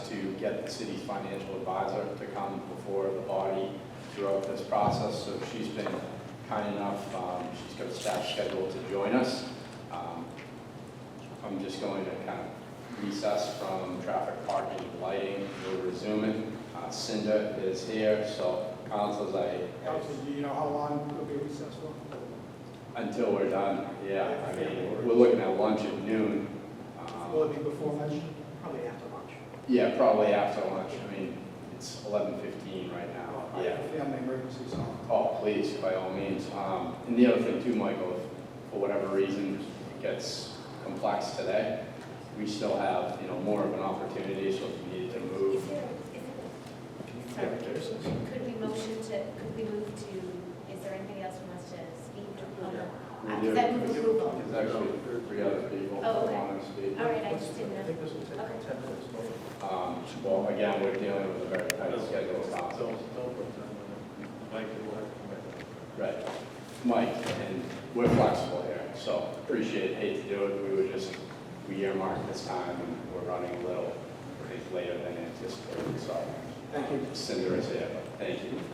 get the city's financial advisor to come before the body throughout this process. So she's been kind enough, um, she's got staff scheduled to join us. Um, I'm just going to kind of recess from traffic, parking, lighting, we'll resume it. Uh, Cinda is here, so councils, I, Council, do you know how long it'll be recessed for? until we're done, yeah, I mean, we're looking at lunch at noon. Um, Will it be before lunch? Probably after lunch. Yeah, probably after lunch. I mean, it's eleven fifteen right now. Yeah. Family emergency, so. Oh, please, by all means. Um, and the other thing too, Michael, if for whatever reason it gets complex today, we still have, you know, more of an opportunity, so if you needed to Is move. there, is there, sorry, could we motion to, could we move to, is there anybody else who wants to speak? Oh, no. Uh, We do. Is that move approval? There's actually three other people who Oh, okay. want to speak. All right, I just didn't I know. think this will take Okay. ten minutes. but Um, well, again, we're dealing with a very tight schedule. Don't, so- don't put time on it. Mike, you will have to come back. Right. Mike, and we're flexible here, so appreciate, it. hate to do it, we were just, we earmarked this time, and we're running a little, I think, later than anticipated, so. Thank you. Cinder is here, but thank you.